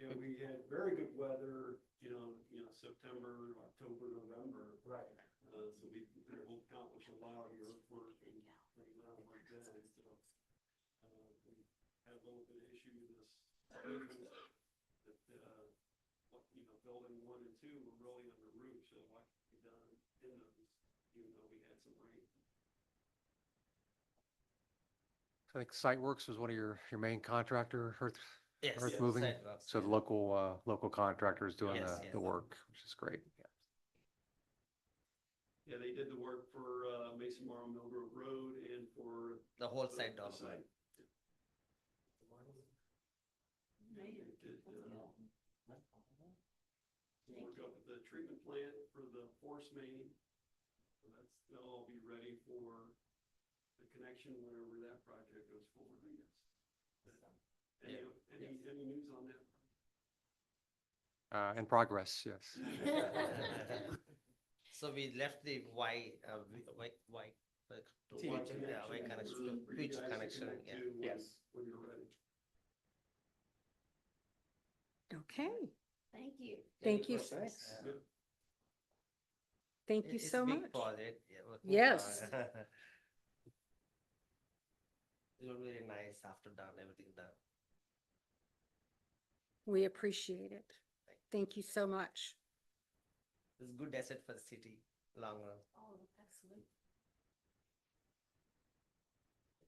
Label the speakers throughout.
Speaker 1: you know, we had very good weather, you know, you know, September, October, November.
Speaker 2: Right.
Speaker 1: Uh, so we could accomplish a lot of your work and pretty well like that, and so. uh, we Had a little bit of issue with this. building That, uh, what, you know, building one and two were really under roof, so a lot could be done in those, even though we had some rain.
Speaker 3: I think Siteworks was one of your, your main contractor, earth,
Speaker 4: Yes.
Speaker 3: earth
Speaker 1: yes,
Speaker 3: moving.
Speaker 4: sidewalks,
Speaker 3: So the
Speaker 4: yeah.
Speaker 3: local, uh, local contractors doing
Speaker 4: Yes,
Speaker 3: the,
Speaker 4: yes.
Speaker 3: the work, which is great.
Speaker 1: Yeah, they did the work for, uh, Mason Morrow Mill Grove Road and for.
Speaker 4: The whole
Speaker 1: the-
Speaker 4: side
Speaker 1: the
Speaker 4: development.
Speaker 1: site. Yeah, they did, uh, We'll go with the treatment plant for the force main. So That's, they'll all be ready for the connection whenever that project goes forward, I guess. Any, any, any news on that?
Speaker 3: Uh, in progress, yes.
Speaker 4: So we left the Y, uh, v- Y, Y. uh,
Speaker 1: The
Speaker 4: to-
Speaker 1: Y
Speaker 4: yeah, Y connection,
Speaker 1: for- for you
Speaker 4: bridge
Speaker 1: guys to
Speaker 4: connection,
Speaker 1: connect
Speaker 4: yeah.
Speaker 1: to when-
Speaker 2: Yes.
Speaker 1: When you're ready.
Speaker 5: Okay,
Speaker 6: Thank you.
Speaker 5: thank you,
Speaker 2: Thanks.
Speaker 1: Yeah.
Speaker 5: thank
Speaker 4: It-
Speaker 5: you
Speaker 4: it's
Speaker 5: so
Speaker 4: big
Speaker 5: much.
Speaker 4: project, yeah, but-
Speaker 5: Yes.
Speaker 4: It was very nice after done, everything done.
Speaker 5: We appreciate it. Thank you so much.
Speaker 4: It's good asset for the city, long run.
Speaker 6: Oh, excellent.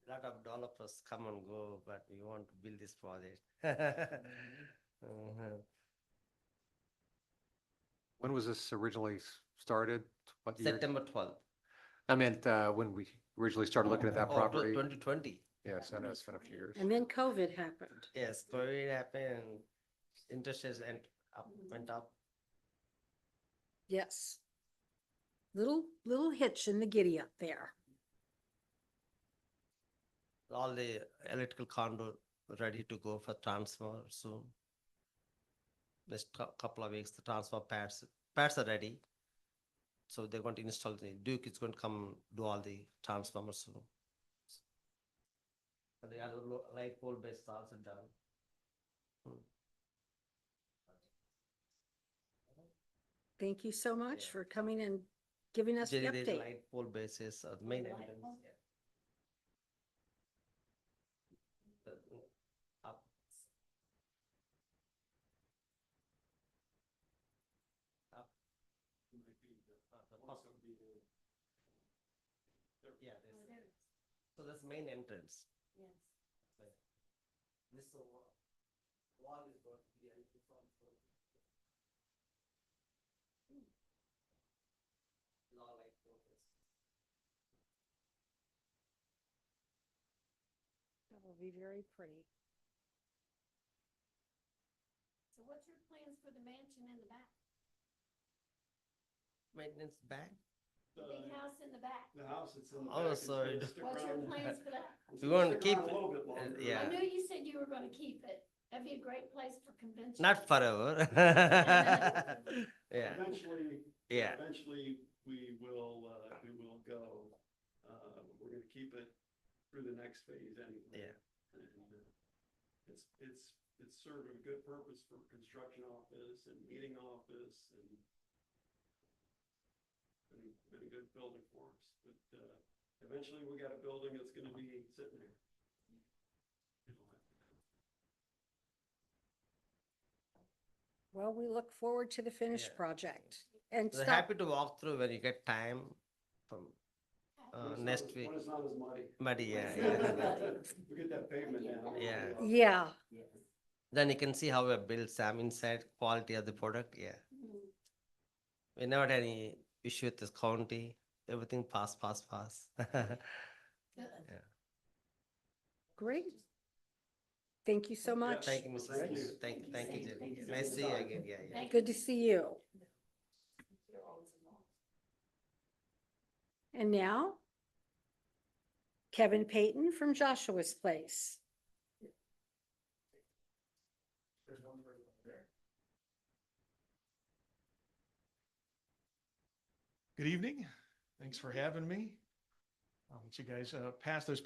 Speaker 4: Lot of developers come and go, but we want to build this project.
Speaker 3: Mm-hmm.
Speaker 4: Mhm.
Speaker 3: When was this originally s- started? What year?
Speaker 4: September twelfth.
Speaker 3: I meant, uh, when we originally started looking
Speaker 4: Oh,
Speaker 3: at that property.
Speaker 4: Twenty twenty,
Speaker 3: Yes, I know it's been a few years.
Speaker 5: And then COVID happened.
Speaker 4: yes, COVID happened, and interest is and up, went up.
Speaker 5: Yes. Little, little hitch in the giddy up there.
Speaker 4: All the electrical condo ready to go for transfer soon. Next cou- couple of weeks, the transfer pads, pads are ready. So they're going to install the, Duke is going to come do all the transformers soon. And the other lo- light pole base is also done. Hmm.
Speaker 5: Thank you so much
Speaker 4: Yeah.
Speaker 5: for coming and giving us the
Speaker 4: Jerry, there's
Speaker 5: update.
Speaker 4: light pole bases are the main
Speaker 6: Light
Speaker 4: evidence.
Speaker 6: pole?
Speaker 4: yeah. The- Up,
Speaker 1: Might be,
Speaker 4: uh, the
Speaker 1: uh,
Speaker 4: first-
Speaker 1: also be the-
Speaker 4: yeah,
Speaker 6: Oh,
Speaker 4: there's-
Speaker 6: there it is.
Speaker 4: so that's main entrance.
Speaker 6: Yes.
Speaker 4: This is wa- wall is going to be an entrance on for- Hmm. Law light pole bases.
Speaker 5: That will be very pretty.
Speaker 6: So what's your plans for the mansion in the back?
Speaker 4: Maintenance bank?
Speaker 6: The big
Speaker 1: The
Speaker 6: house in the back?
Speaker 1: the house that's in Uh, the
Speaker 4: Oh,
Speaker 1: back. it's gonna
Speaker 4: sorry.
Speaker 1: stick
Speaker 6: What's your
Speaker 1: around-
Speaker 6: plans for that?
Speaker 1: it's
Speaker 4: We
Speaker 1: gonna
Speaker 4: wanna
Speaker 1: stick
Speaker 4: keep
Speaker 1: around
Speaker 4: it,
Speaker 1: A little bit
Speaker 4: uh,
Speaker 1: longer.
Speaker 6: I
Speaker 4: yeah.
Speaker 6: knew you said you were gonna keep it. That'd be a great place for convention.
Speaker 4: Not uh, forever. Yeah,
Speaker 1: Eventually,
Speaker 4: yeah,
Speaker 1: Eventually, we will, uh, we will go, uh, we're gonna keep it through the next phase anyway.
Speaker 4: Yeah.
Speaker 1: And, uh, It's, it's, it's served a good purpose for construction office and meeting office and been, been a good building for us, but, uh, eventually we got a building that's gonna be sitting there. You know,
Speaker 5: Well, we look forward to the finished
Speaker 4: Yeah.
Speaker 5: project and
Speaker 4: we're
Speaker 5: stop.
Speaker 4: happy to walk through when you get time from
Speaker 6: Okay.
Speaker 4: Uh,
Speaker 1: when it's not
Speaker 4: next
Speaker 1: as-
Speaker 4: week.
Speaker 1: When it's not as muddy.
Speaker 4: muddy, yeah, yeah.
Speaker 1: We get that pavement now.
Speaker 4: Yeah.
Speaker 5: Yeah,
Speaker 6: Yes.
Speaker 4: Then you can see how we built some inside quality of the product, yeah.
Speaker 6: Mm.
Speaker 4: We never had any issue with this county, everything pass, pass, pass.
Speaker 6: Good.
Speaker 5: great. Thank you so
Speaker 1: Yeah,
Speaker 5: much.
Speaker 4: Thank you,
Speaker 1: Well,
Speaker 4: Mrs.
Speaker 1: thank
Speaker 4: Thank, thank,
Speaker 1: you.
Speaker 4: you, thank you,
Speaker 6: Thank
Speaker 4: Jerry.
Speaker 6: you.
Speaker 4: Nice to see you again, yeah, yeah.
Speaker 6: Thank
Speaker 5: Good
Speaker 6: you.
Speaker 5: to see you.
Speaker 6: You're always involved.
Speaker 5: And now, Kevin Payton from Joshua's Place.
Speaker 7: Good evening. Thanks for having me. I'll let you guys uh, pass those